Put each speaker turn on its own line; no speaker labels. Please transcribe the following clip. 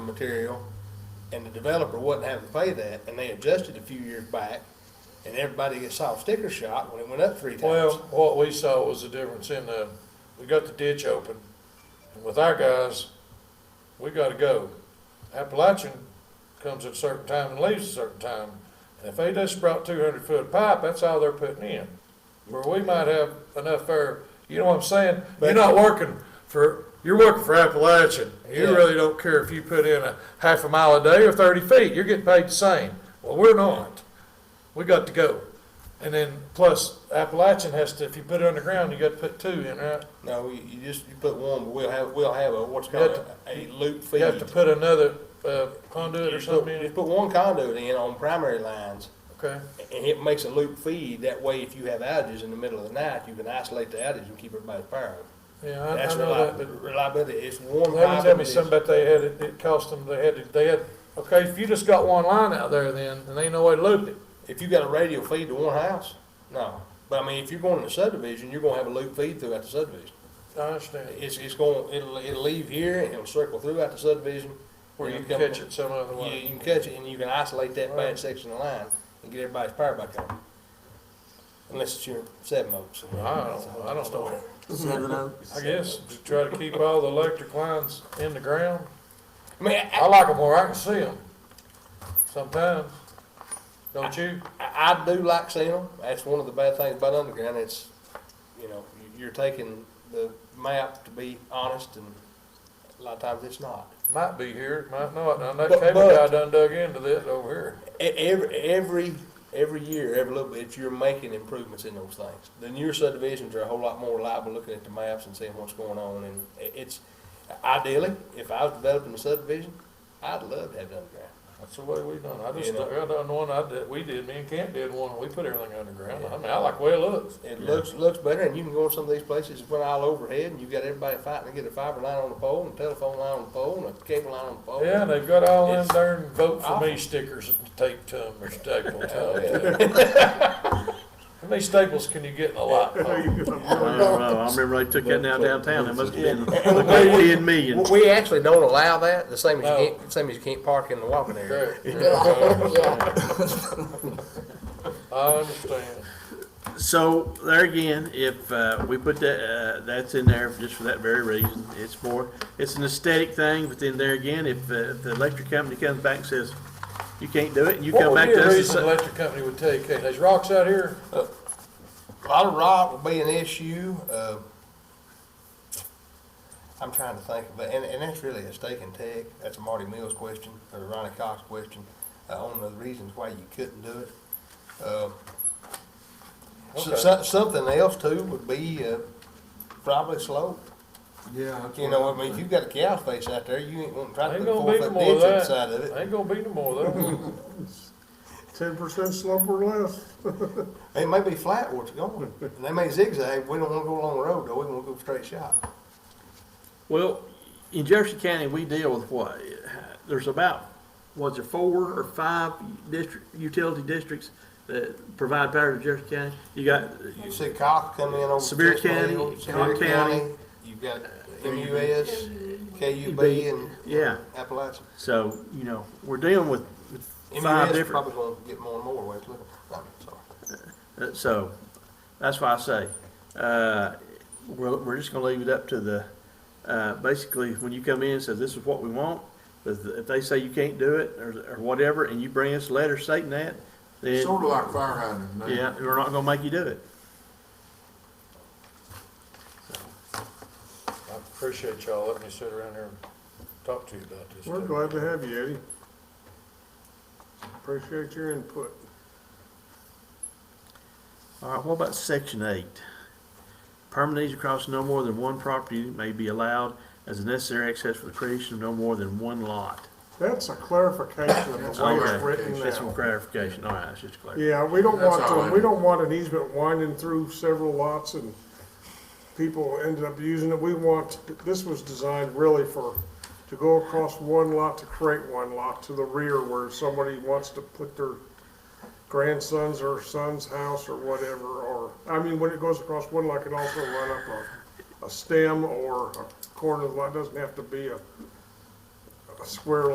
material, and the developer wasn't having to pay that, and they adjusted a few years back, and everybody saw sticker shock when it went up three
Well,
times.
what we saw was the difference in the, we got the ditch open, and with our guys, we gotta go. Appalachian comes at a certain time and leaves at a certain time, and if they just brought two hundred foot of pipe, that's all they're putting in. Where we might have enough air, you know what I'm saying? You're not working for, you're working for Appalachian, you
Yeah.
really don't care if you put in a half a mile a day or thirty feet, you're getting paid the same. Well, we're not, we got to go. And then plus Appalachian has to, if you put it underground, you got to put two in, right?
No, you, you just, you put one, but we'll have, we'll have a, what's called
have
a a loop
You
feed.
have to put another uh, conduit or
Just put-
something in
Just
it.
put one conduit in on primary lines,
Okay,
and it makes a loop feed, that way if you have outages in the middle of the night, you can isolate the outage and keep everybody's power.
yeah, I, I
That's
know that,
reliability,
but
reliability, it's one
they
pipe.
were telling me
and it's-
something about they had, it it cost them, they had, to- they had, okay, if you just got one line out there then, and ain't no way to loop it.
If you got a radio feed to one house, no. But I mean, if you're going in a subdivision, you're gonna have a loop feed throughout the subdivision.
I understand,
It's, it's going, it'll, it'll leave here and it'll circle throughout the subdivision.
where you
and
can
come-
catch it some other
You,
way.
you can catch it and you can isolate that
Right.
bad section of the line and get everybody's power back on. Unless it's your seven oaks.
I don't, I don't know,
Seven Oaks.
I guess, just try to keep all the electric lines in the ground.
I mean, I,
I like them where I can see them sometimes, don't you?
I I do like seeing them. That's one of the bad things about underground. It's, you know, you- you're taking the map to be honest and a lot of times it's not.
Might be here, might not. Now, that
But-
cable guy
but-
done dug into this over here.
E- Every, every, every year, every little bit, you're making improvements in those things. The newer subdivisions are a whole lot more reliable looking at the maps and seeing what's going on, and i- it's, ideally, if I was developing a subdivision, I'd love to have it underground.
That's the way we done. it. I just,
You know.
I done one, I did, we did, me and Kent did one, we put everything underground. I mean, I like the way it looks.
It looks, looks better, and you can go in some of these places, it went all overhead, and you've got everybody fighting to get a fiber line on the pole, and a telephone line on the pole, and a cable line on the pole.
Yeah, and they've got all them
Oh, It's
darn vote for me stickers taped to them or stapled to them. How many staples can you get in a lot?
I don't know, I remember they took that down downtown, that must have been
Yeah.
like ten million.
We- We actually don't allow that, the same as
No.
you can't, same as you can't park in the walking area.
Correct.
Yeah,
I understand.
So there again, if, uh, we put that, uh, that's in there just for that very reason, it's for, it's an aesthetic thing, but then there again, if, uh, if the electric company comes back and says, you can't do it, and you
What
come
would
back
be
to
a
us and
reason the
say,
electric company would tell you, okay, there's rocks out here?
A lot of rock would be an issue. Uh, I'm trying to think of, it, and, and that's really a stake and tech. That's a Marty Mills question or a Ronnie Cox question uh, on the reasons why you couldn't do it. Uh, so-
Okay.
so- something else too would be uh, probably slope.
Yeah.
You know, I mean, if you've got a cow face out there, you ain't wanting to try to
Ain't
put a
gonna
four
be no
foot
more
ditch
of that.
inside of it.
Ain't gonna be no more of that.
Ten percent slope or less.
It may be flat where it's going. And they may zigzag. We don't want to go along the road though. We want to go straight shot.
well, in Jefferson County, we deal with what? There's about, was there four or five district, utility districts that provide power to Jefferson County? You got,
You see Cox come in over.
Sevier
Chestnut
County,
Hill, Sevier
Cobb
County,
County.
you've got MUS, KUB and
yeah,
Appalachia.
so, you know, we're dealing with with five
MUS
different.
probably gonna get more and more, wait, look, I'm sorry.
Uh, So, that's why I say, uh, we're, we're just gonna leave it up to the, uh, basically, when you come in and say, this is what we want, but if they say you can't do it, or, or whatever, and you bring us a letter stating that, then,
Sort of like fire hydrant. man.
yeah, we're not gonna make you do it.
I appreciate y'all letting me sit around here and talk to you about this.
We're
too.
glad to have you, Eddie. Appreciate your input.
All right, what about section eight? Permanent across no more than one property may be allowed as a necessary access for the creation of no more than one lot.
That's a clarification of the way it's
Okay.
written
That's some
now.
clarification, all right, that's just clarification.
Yeah, we don't
That's
want,
all
to-
I-
we don't want an easement winding through several lots and people ended up using it. We want, this was designed really for, to go across one lot to create one lot to the rear where somebody wants to put their grandson's or son's house or whatever, or, I mean, when it goes across one lot, it can also run up a, a stem or a corner of the lot, It doesn't have to be a, a square